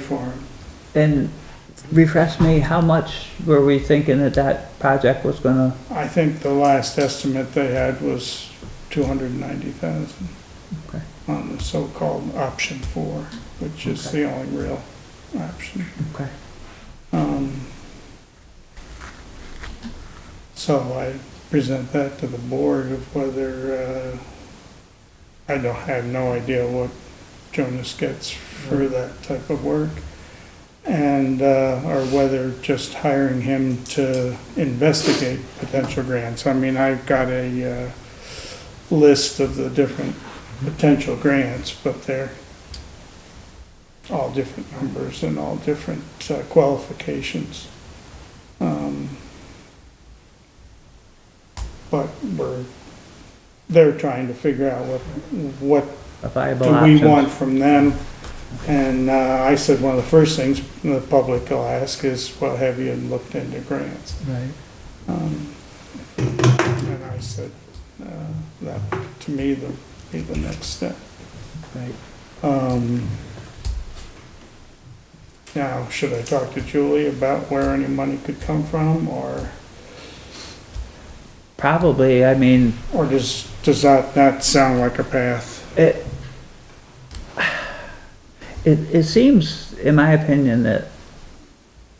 Farm. And refresh me, how much were we thinking that that project was gonna, I think the last estimate they had was two hundred and ninety thousand Okay. on the so-called option four, which is the only real option. okay, Um, So I present that to the board of whether, uh, I don't, have no idea what Jonas gets for that type of work. And, uh, or whether just hiring him to investigate potential grants. I mean, I've got a, uh, list of the different potential grants, but they're all different numbers and all different uh, qualifications. Um, But we're, they're trying to figure out what, what a viable do we option? want from them? And uh, I said, one of the first things the public will ask is, well, have you looked into grants? Right, Um, And I said, uh, that, to me, the, be the next step. right. Um, Now, should I talk to Julie about where any money could come from, or, Probably, I mean, or does, does that not sound like a path? it, it, it seems, in my opinion, that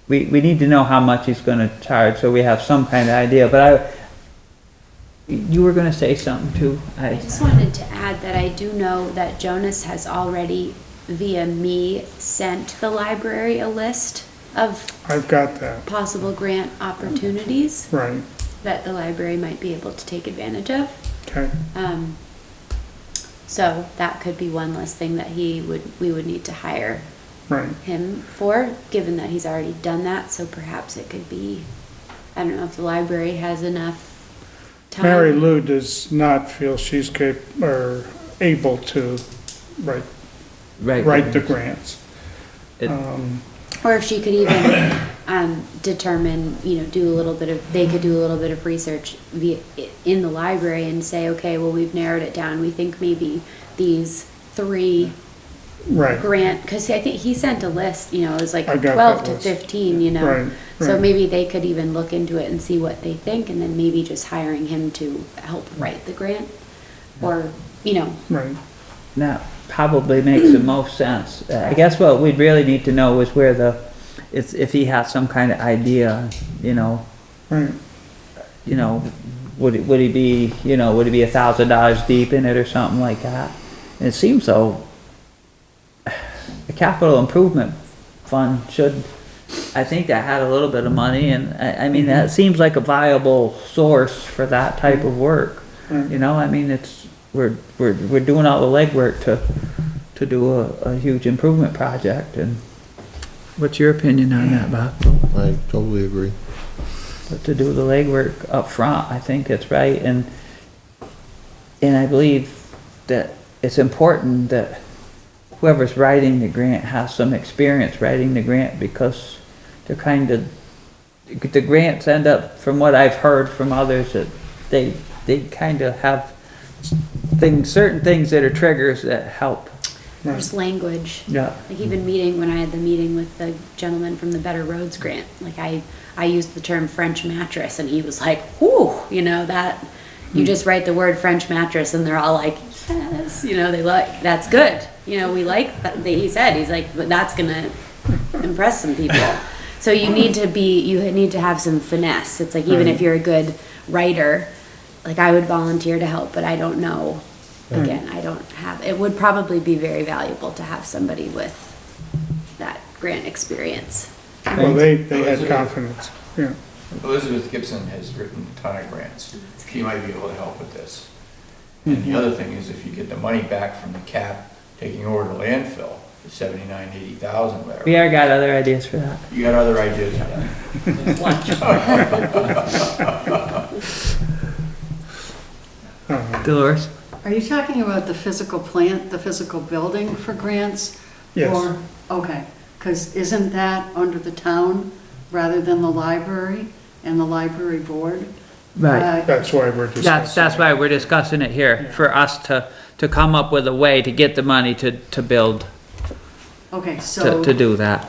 we, we need to know how much he's gonna charge, so we have some kind of idea, but I, you were gonna say something too, I I, just wanted to add that I do know that Jonas has already, via me, sent the library a list of I've got that, possible grant opportunities right, that the library might be able to take advantage of. okay, Um, so that could be one less thing that he would, we would need to hire right. him for, given that he's already done that, so perhaps it could be, I don't know if the library has enough time. Mary Lou does not feel she's cap, or able to write, right. write the grants. It- Um, Or if she could even um, determine, you know, do a little bit of, they could do a little bit of research via, in the library and say, okay, well, we've narrowed it down. We think maybe these three Right, grant, because I think he sent a list, you know, it was like I got that 12 to list. 15, you know? Right, So right. maybe they could even look into it and see what they think, and then maybe just hiring him to help write the grant. Or, you know, right, that probably makes the most sense. Uh, I guess what we'd really need to know is where the, it's, if he has some kind of idea, you know, right, you know, would, it- would he be, you know, would he be a thousand dollars deep in it or something like that? And it seems so, the capital improvement fund should, I think that had a little bit of money and I, I mean, that seems like a viable source for that type of work. right. You know, I mean, it's, we're, we're, we're doing all the legwork to, to do a, a huge improvement project and what's your opinion on that, Bob? I totally agree. But to do the legwork up front, I think it's right and, and I believe that it's important that whoever's writing the grant has some experience writing the grant because they're kind of, the grants end up, from what I've heard from others, that they, they kind of have things, certain things that are triggers that help. there's language. Yeah. Like even meeting, when I had the meeting with the gentleman from the Better Roads Grant, like I, I used the term French mattress and he was like, whoo, you know, that, you just write the word French mattress and they're all like, yes, you know, they like, that's good. You know, we like, that that he said, he's like, but that's gonna impress some people. So you need to be, you need to have some finesse. It's like, even if you're a good writer, like I would volunteer to help, but I don't know. Again, I don't have, it would probably be very valuable to have somebody with that grant experience. Well, they, they had confidence, yeah. Elizabeth Gibson has written a ton of grants. She might be able to help with this. And the other thing is if you get the money back from the cap taking over the landfill, the seventy-nine, eighty We thousand, whatever, are got other ideas for that. you got other ideas for that? Uh, Dolores? Are you talking about the physical plant, the physical building for grants? Yes. Or- Okay, because isn't that under the town rather than the library and the library board? Right. Uh, That's why we're discussing. That's, that's it. why we're discussing it here, for us to, to come up with a way to get the money to, to build. Okay, so. to, to do that.